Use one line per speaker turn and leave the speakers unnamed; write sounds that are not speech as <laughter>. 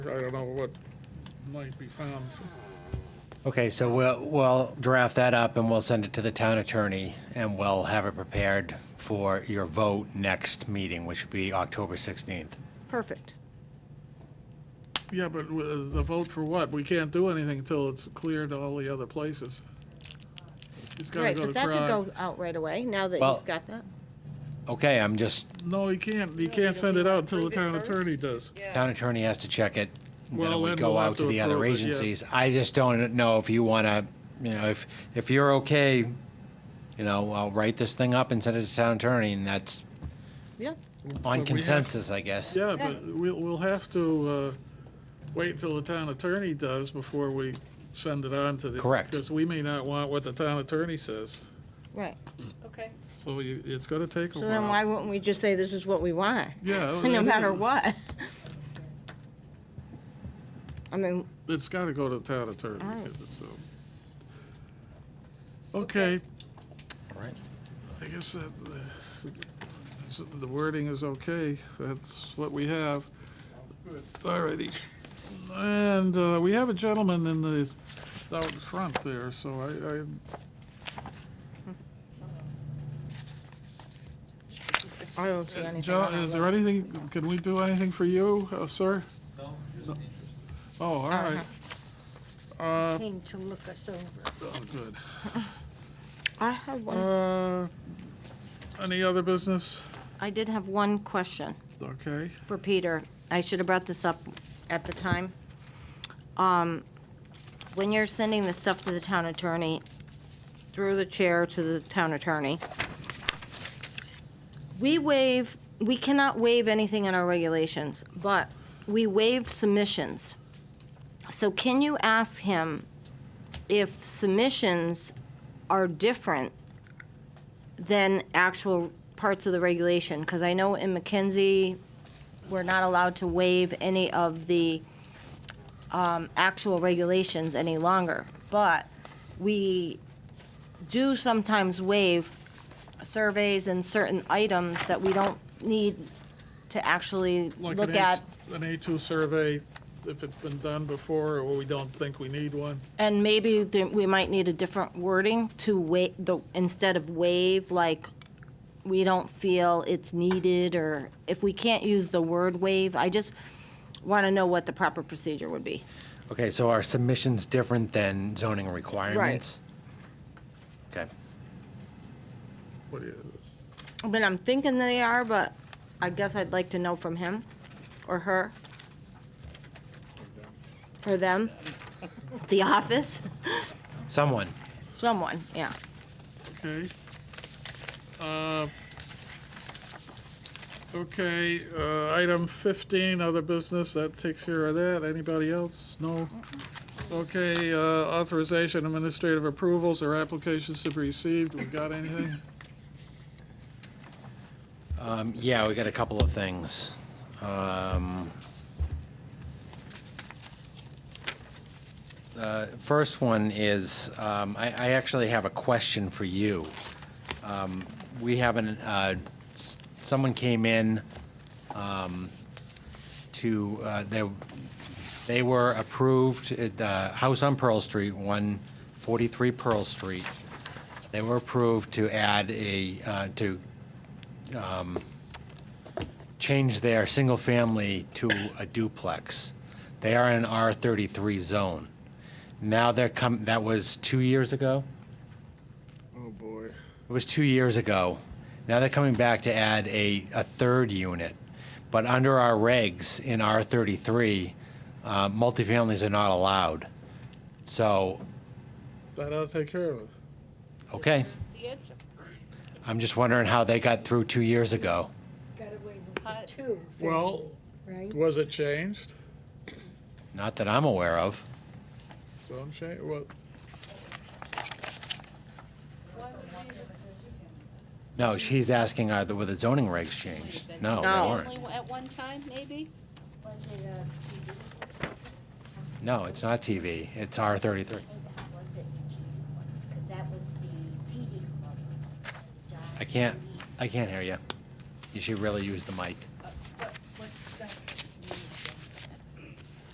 I don't know what might be found.
Okay, so we'll, we'll draft that up and we'll send it to the town attorney and we'll have it prepared for your vote next meeting, which would be October 16th.
Perfect.
Yeah, but w- the vote for what? We can't do anything until it's cleared to all the other places. He's gotta
Right,
go to
but that could go
Prague.
out right away, now that
Well-
he's got that.
Okay, I'm just,
No, he can't, he can't send it out until the town attorney does.
town attorney has to check it. and Then it
Well,
would
then
go
we'll
out
have
to
to
the other
approve it, yeah.
agencies. I just don't know if you want to, you know, if, if you're okay, you know, I'll write this thing up and send it to town attorney and that's
Yeah,
on
have-
consensus, I guess.
Yeah, but we'll, we'll have to, uh, wait till the town attorney does before we send it on to the.
Correct.
Because we may not want what the town attorney says,
right.
Okay.
so you, it's gonna take a
So then why
while.
wouldn't we just say this is what we want? <laughs>
Yeah.
No matter what. I mean,
It's gotta go to the town attorney,
Oh.
'cause it's, um, Okay,
All right.
I guess that, uh, the wording is okay, that's what we have. All righty. And uh, we have a gentleman in the, out in front there, so I, I,
I don't see anything.
Uh, John,
on
is
it.
there anything, can we do anything for you, uh, sir? No, Oh, all
Uh-huh.
right. Uh,
Came to look us over.
oh, good.
I have one,
Uh, Any other business?
I did have one question
Okay,
for Peter. I should have brought this up at the time. Um, When you're sending this stuff to the town attorney, through the chair to the town attorney, we waive, we cannot waive anything in our regulations, but we waive submissions. So can you ask him if submissions are different than actual parts of the regulation? Because I know in McKinsey, we're not allowed to waive any of the um, actual regulations any longer. But we do sometimes waive surveys and certain items that we don't need to actually
like
look
an
at.
A, an A2 survey, if it's been done before, or we don't think we need one.
And maybe th- we might need a different wording to wait, the, instead of waive, like, we don't feel it's needed, or if we can't use the word waive, I just want to know what the proper procedure would be.
Okay, so are submissions different than zoning requirements? Okay.
What do you,
I mean, I'm thinking they are, but I guess I'd like to know from him, or her. Or them, the office,
Someone.
someone, yeah.
Okay. Uh, Okay, uh, item 15, other business, that takes care of that. Anybody else? No? Okay, uh, authorization, administrative approvals or applications to be received. We got anything?
Um, Yeah, we got a couple of things. Um, uh, First one is, um, I I actually have a question for you. Um, We haven't, uh, s- someone came in um, to, uh, they they were approved at the house on Pearl Street, 143 Pearl Street. They were approved to add a, uh, to change their single family to a duplex. They are in an R33 zone. Now they're come, that was two years ago?
<laughs> Oh, boy.
It was two years ago. Now they're coming back to add a, a third unit. But under our regs in R33, uh, multifamilies are not allowed. So,
That I'll take care of.
okay,
The answer.
I'm just wondering how they got through two years ago.
Got away with the two,
Well,
right?
was it changed?
Not that I'm aware of.
Zone change, what?
No, she's asking are the, were the zoning regs changed? No, they
No.
weren't.
At one time, maybe?
Was it uh, a TV?
No, it's not TV. It's R33.
Was it TV once? Because that was the feeding club.
I can't, I can't hear you. You should really use the mic.